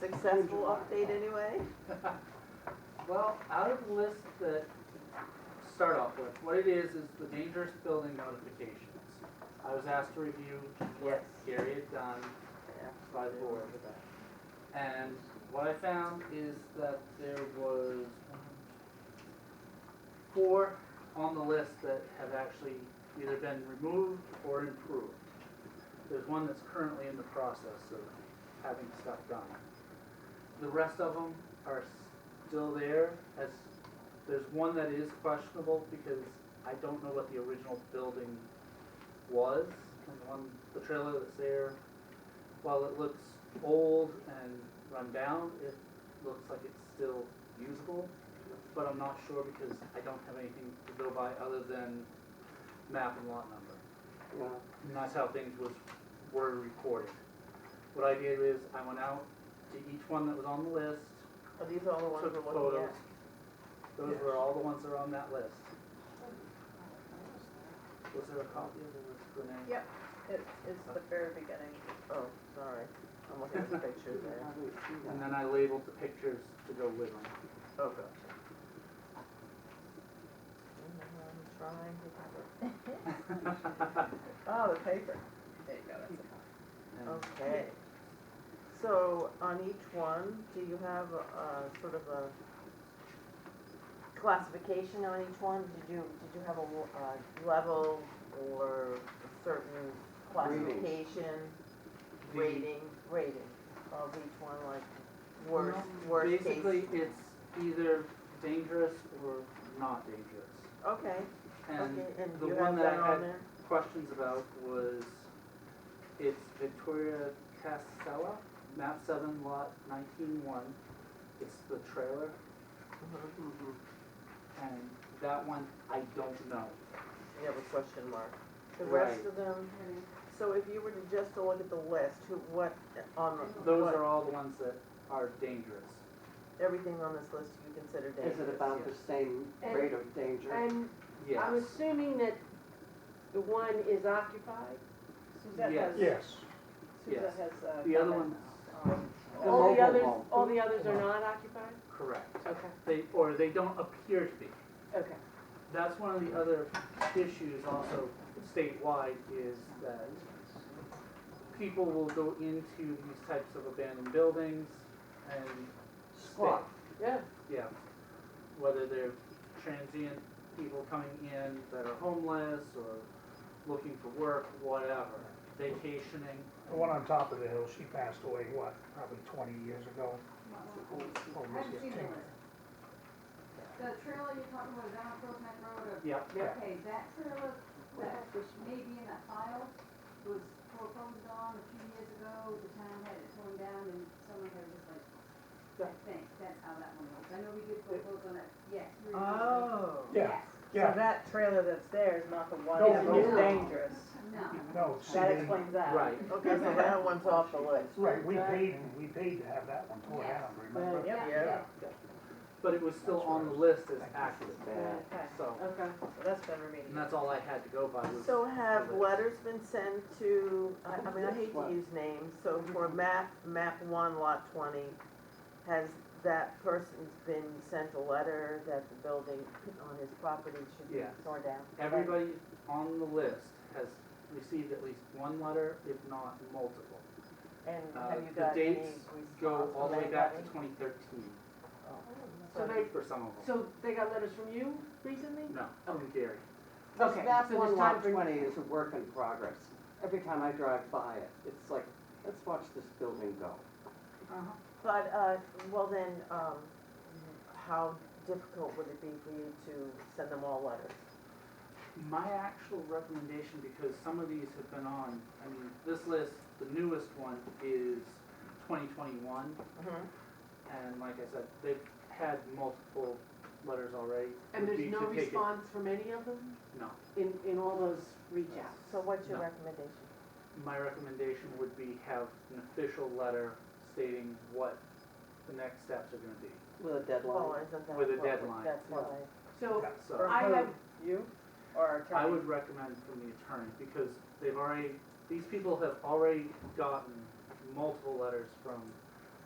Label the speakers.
Speaker 1: successful update anyway?
Speaker 2: Well, out of the list that, start off with, what it is, is the dangerous building notifications. I was asked to review what
Speaker 1: Yes.
Speaker 2: Gary had done by the board. And what I found is that there was four on the list that have actually either been removed or improved. There's one that's currently in the process of having stuff done. The rest of them are still there as, there's one that is questionable because I don't know what the original building was. And the one, the trailer that's there, while it looks old and run down, it looks like it's still usable. But I'm not sure because I don't have anything to go by other than map and lot number. And that's how things was, were recorded. What I did is I went out to each one that was on the list,
Speaker 1: Are these all the ones
Speaker 2: took
Speaker 1: we're looking
Speaker 2: photos.
Speaker 1: at?
Speaker 2: Those were all the ones that are on that list. Was there a copy of the Renee?
Speaker 1: Yep. It's, it's the very beginning. Oh, sorry, I'm looking at the picture there.
Speaker 2: And then I labeled the pictures to go with them.
Speaker 1: Oh, gotcha. I'm trying to remember. Oh, the paper. There you go, that's it.
Speaker 2: And
Speaker 1: Okay. So on each one, do you have a, a sort of a classification on each one? Did you, did you have a, w- a level or a certain
Speaker 3: Rating.
Speaker 1: classification?
Speaker 2: the-
Speaker 1: Rating, rating of each one, like worst,
Speaker 2: No,
Speaker 1: worst case?
Speaker 2: Basically, it's either dangerous or not dangerous.
Speaker 1: Okay,
Speaker 2: And
Speaker 1: okay, and
Speaker 2: the
Speaker 1: you
Speaker 2: one
Speaker 1: have
Speaker 2: that
Speaker 1: that
Speaker 2: I
Speaker 1: on
Speaker 2: had
Speaker 1: there?
Speaker 2: questions about was, it's Victoria Casella, map seven lot nineteen one. It's the trailer,
Speaker 1: Mhm.
Speaker 2: Mm-hmm. and that one, I don't know.
Speaker 1: You have a question mark. The rest
Speaker 2: Right.
Speaker 1: of them, so if you were to just to look at the list, who, what, on, what?
Speaker 2: Those are all the ones that are dangerous.
Speaker 1: everything on this list you consider dangerous.
Speaker 3: Is it about the same rate of danger?
Speaker 4: And
Speaker 2: Yes.
Speaker 4: I'm assuming that the one is occupied? Suzette
Speaker 2: Yes.
Speaker 4: has.
Speaker 5: Yes,
Speaker 2: Yes.
Speaker 4: Suzette has. uh,
Speaker 2: The other one's Oh.
Speaker 4: um,
Speaker 3: The
Speaker 4: All the
Speaker 3: mobile
Speaker 4: others,
Speaker 3: home.
Speaker 4: all the others are not occupied?
Speaker 2: correct.
Speaker 4: Okay,
Speaker 2: They, or they don't appear to be.
Speaker 4: okay.
Speaker 2: that's one of the other issues also statewide is that people will go into these types of abandoned buildings and
Speaker 3: Squat.
Speaker 4: Yeah.
Speaker 2: yeah, whether they're transient people coming in that are homeless or looking for work, whatever, vacationing.
Speaker 5: the one on top of the hill, she passed away, what, probably twenty years ago? Or was
Speaker 6: I've
Speaker 5: it
Speaker 6: seen
Speaker 5: 10?
Speaker 6: it. The trailer you're talking about down Crook Neck Road,
Speaker 2: Yeah,
Speaker 6: uh, okay, that trailer, that which may be in that file, was foreclosed on a few years ago, the town had it torn down and someone had just like,
Speaker 2: Yeah.
Speaker 6: I think, that's how that one was, I know we did foreclose on it, yes. we were-
Speaker 1: Oh.
Speaker 5: Yeah.
Speaker 6: Yes,
Speaker 5: Yeah,
Speaker 1: that trailer that's there is not the one
Speaker 5: No, that's no.
Speaker 1: dangerous.
Speaker 6: no,
Speaker 5: no, see, they,
Speaker 1: that.
Speaker 2: right.
Speaker 1: Okay, so that one's off the list.
Speaker 5: right, we paid, we paid to have that one tore down, remember?
Speaker 1: Yep.
Speaker 6: yeah,
Speaker 1: Yeah.
Speaker 6: yeah.
Speaker 2: But it was still on the list as active,
Speaker 1: Okay,
Speaker 2: so,
Speaker 4: Okay.
Speaker 1: so that's been
Speaker 2: and
Speaker 1: remediated.
Speaker 2: that's all I had to go by was.
Speaker 7: So have
Speaker 2: the list.
Speaker 7: letters been sent to, I I mean, I hate to use names, so for
Speaker 2: Mhm.
Speaker 7: map, map one, lot twenty, has that person's been sent a letter that the building on his property should be
Speaker 2: Yes.
Speaker 7: torn down?
Speaker 2: Everybody on the list has received at least one letter, if not multiple.
Speaker 7: And
Speaker 2: Uh,
Speaker 7: have you
Speaker 2: The
Speaker 7: got any
Speaker 2: dates
Speaker 7: response
Speaker 2: go all the way
Speaker 7: from
Speaker 2: back to
Speaker 7: anybody?
Speaker 2: 2013
Speaker 4: So they,
Speaker 2: for some of them.
Speaker 4: so they got letters from you recently?
Speaker 2: No, from Gary.
Speaker 3: This
Speaker 4: Okay,
Speaker 3: map
Speaker 4: so
Speaker 3: one
Speaker 4: there's
Speaker 3: lot
Speaker 4: time for-
Speaker 3: twenty is a work in progress. Every time I drive by it, it's like, let's watch this building go.
Speaker 4: Uh-huh.
Speaker 7: But, uh, well then, um, how difficult would it be for you to send them all letters?
Speaker 2: My actual recommendation, because some of these have been on, I mean, this list, the newest one is 2021. And like I said, they've had multiple letters already.
Speaker 4: And
Speaker 2: Would be
Speaker 4: there's no
Speaker 2: to take it-
Speaker 4: response from any of them
Speaker 2: No.
Speaker 4: in, in all those reach outs?
Speaker 7: So what's your
Speaker 2: No.
Speaker 7: recommendation?
Speaker 2: My recommendation would be have an official letter stating what the next steps are gonna be.
Speaker 3: With a
Speaker 7: Well,
Speaker 3: deadline.
Speaker 7: isn't that
Speaker 2: With a
Speaker 7: what we-
Speaker 2: deadline.
Speaker 7: That's what I.
Speaker 4: So
Speaker 2: So
Speaker 4: I have,
Speaker 1: You or our attorney?
Speaker 2: I would recommend from the attorney because they've already, these people have already gotten multiple letters from